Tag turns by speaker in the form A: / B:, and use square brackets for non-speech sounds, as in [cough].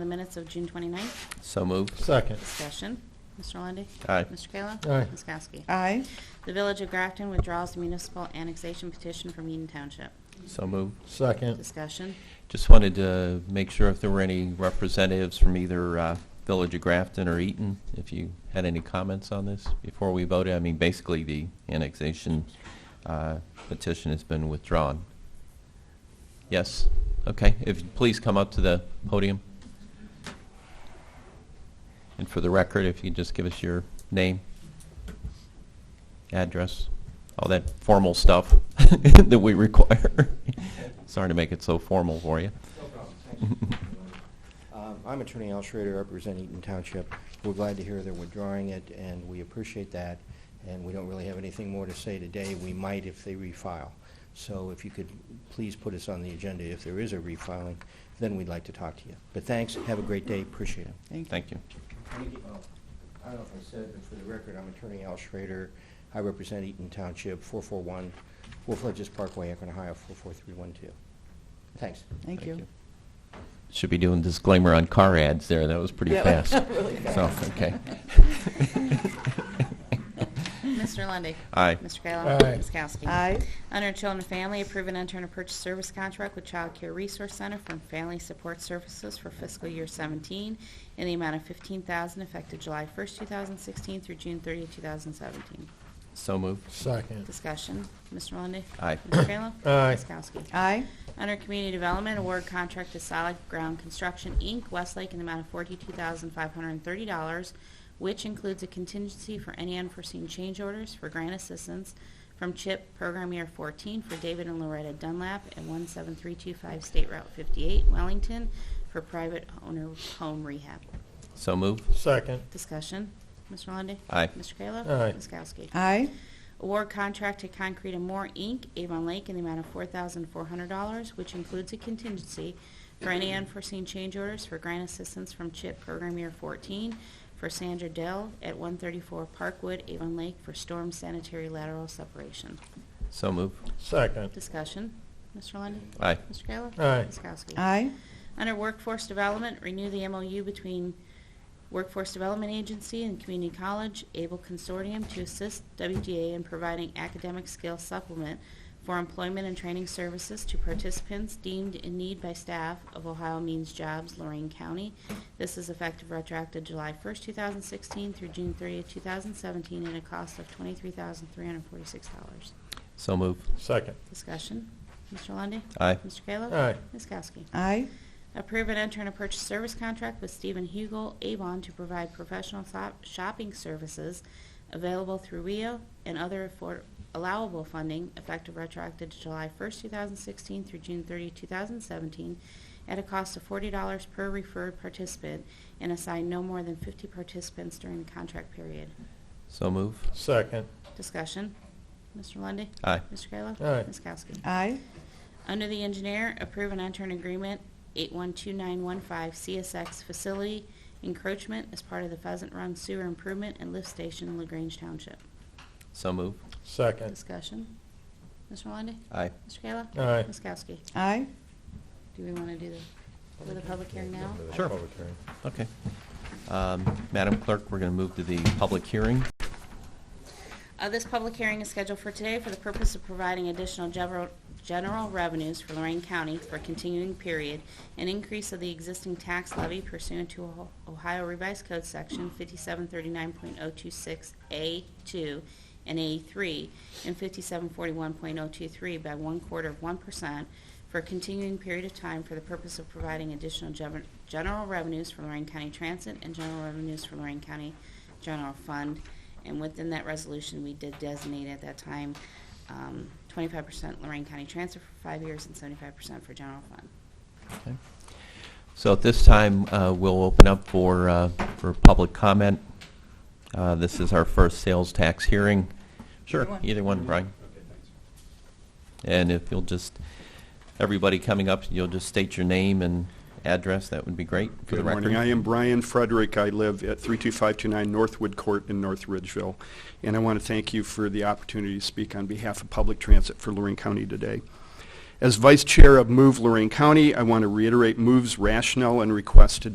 A: minutes of June 29th.
B: So moved.
C: Second.
A: Discussion. Mr. Lundey.
B: Aye.
A: Mr. Kayla.
C: Aye.
A: Ms. Kowski.
D: aye,
A: The Village of Grafton withdraws the municipal annexation petition from Eden Township.
B: So moved.
C: Second.
A: Discussion.
B: Just wanted to make sure if there were any representatives from either uh, Village of Grafton or Eaton, if you had any comments on this before we voted. I mean, basically, the annexation uh, petition has been withdrawn. Yes? Okay, if you please come up to the podium. And for the record, if you could just give us your name, address, all that formal stuff [laughs] that we require. [laughs] Sorry to make it so formal for you.
E: Um, I'm Attorney Al Schrader, represent Eaton Township. We're glad to hear they're withdrawing it, and we appreciate that, and we don't really have anything more to say today. We might if they refile. So if you could please put us on the agenda if there is a refiling, then we'd like to talk to you. But thanks, have a great day, appreciate it.
D: thank you.
B: Thank you.
E: Let me get- oh, I don't know if I said, but for the record, I'm Attorney Al Schrader. I represent Eaton Township, 441 Wolf Ledges Parkway, Akron, Ohio, 44312. Thanks.
D: Thank you.
B: Should be doing disclaimer on car ads there. That was pretty
D: Yeah, [laughs]
B: fast.
D: really
B: So,
D: fast. [laughs]
B: okay.
A: Mr. Lundy.
B: Aye.
A: Mr. Kayla.
C: Aye.
A: Ms. Kowski.
D: Aye.
A: Under Children and Family, approve and enter a purchase service contract with Child Care Resource Center from Family Support Services for fiscal year 17 in the amount of 15000 effective July 1st, 2016 through June 30th, 2017.
B: So moved.
C: Second.
A: Discussion. Mr. Lundy.
B: Aye.
A: Mr. Kayla.
C: Aye.
A: Ms. Kowski.
D: Aye,
A: Under Community Development, award contract to Solid Ground Construction, Inc., Westlake, in the amount of $42,530, which includes a contingency for any unforeseen change orders for grant assistance from CHIP Program Year 14 for David and Loretta Dunlap at 17325 State Route 58, Wellington, for private owner home rehab.
B: So moved.
C: Second.
A: Discussion. Mr. Lundey.
B: Aye.
A: Mr. Kayla.
C: Aye.
A: Ms. Kowski.
D: aye,
A: Award contract to Concrete and More, Inc., Avon Lake, in the amount of $4,400, which includes a contingency for any unforeseen change orders for grant assistance from CHIP Program Year 14 for Sandra Dell at 134 Parkwood, Avon Lake, for storm sanitary lateral separation.
B: So moved.
C: Second.
A: Discussion. Mr. Lundy.
B: Aye.
A: Mr. Kayla?
C: Aye.
A: Ms. Kowski?
D: aye,
A: Under Workforce Development, renew the MOU between Workforce Development Agency and Community College Able Consortium to assist WDA in providing academic skill supplement for employment and training services to participants deemed in need by staff of Ohio Means Jobs, Lorraine County. This is effective retroactive July 1st, 2016 through June 30th, 2017, at a cost of $23,346.
B: So moved.
C: Second.
A: Discussion. Mr. Lundy.
B: Aye.
A: Mr. Kayla?
C: Aye.
A: Ms. Kowski?
D: aye,
A: Approve and enter in a purchase service contract with Stephen Hugel Avon to provide professional so- shopping services available through WIO and other affor- allowable funding effective retroactive to July 1st, 2016 through June 30, 2017, at a cost of $40 per referred participant and assign no more than 50 participants during the contract period.
B: So moved.
C: Second.
A: Discussion. Mr. Lundy.
B: Aye.
A: Mr. Kayla?
C: Aye.
A: Ms. Kowski?
D: aye,
A: Under the engineer, approve and enter an agreement 812915 CSX facility encroachment as part of the Pheasant Run Sewer Improvement and Lift Station in LaGrange Township.
B: So moved.
C: Second.
A: Discussion. Mr. Lundey?
B: Aye.
A: Mr. Kayla?
C: Aye.
A: Ms. Kowski?
D: aye,
A: Do we want to do the, do the public hearing now?
B: Sure.
C: Public hearing.
B: Okay. Um, Madam Clerk, we're going to move to the public hearing.
A: Uh, This public hearing is scheduled for today for the purpose of providing additional general- general revenues for Lorraine County for continuing period, an increase of the existing tax levy pursuant to Oho- Ohio Revised Code Section 5739.026A2 and A3 and 5741.023 by one quarter of 1% for a continuing period of time for the purpose of providing additional gever- general revenues for Lorraine County Transit and general revenues for Lorraine County General Fund. And within that resolution, we did designate at that time um, 25% Lorraine County Transit for five years and 75% for general fund.
B: Okay. So at this time, uh, we'll open up for, uh, for public comment. Uh, This is our first sales tax hearing. Sure,
D: Either one.
B: either one, Brian. And if you'll just, everybody coming up, you'll just state your name and address, that would be great for the
F: Good
B: record.
F: morning. I am Brian Frederick. I live at 32529 Northwood Court in North Ridgeville. And I want to thank you for the opportunity to speak on behalf of public transit for Lorraine County today. As Vice Chair of Move Lorraine County, I want to reiterate Move's rationale and request to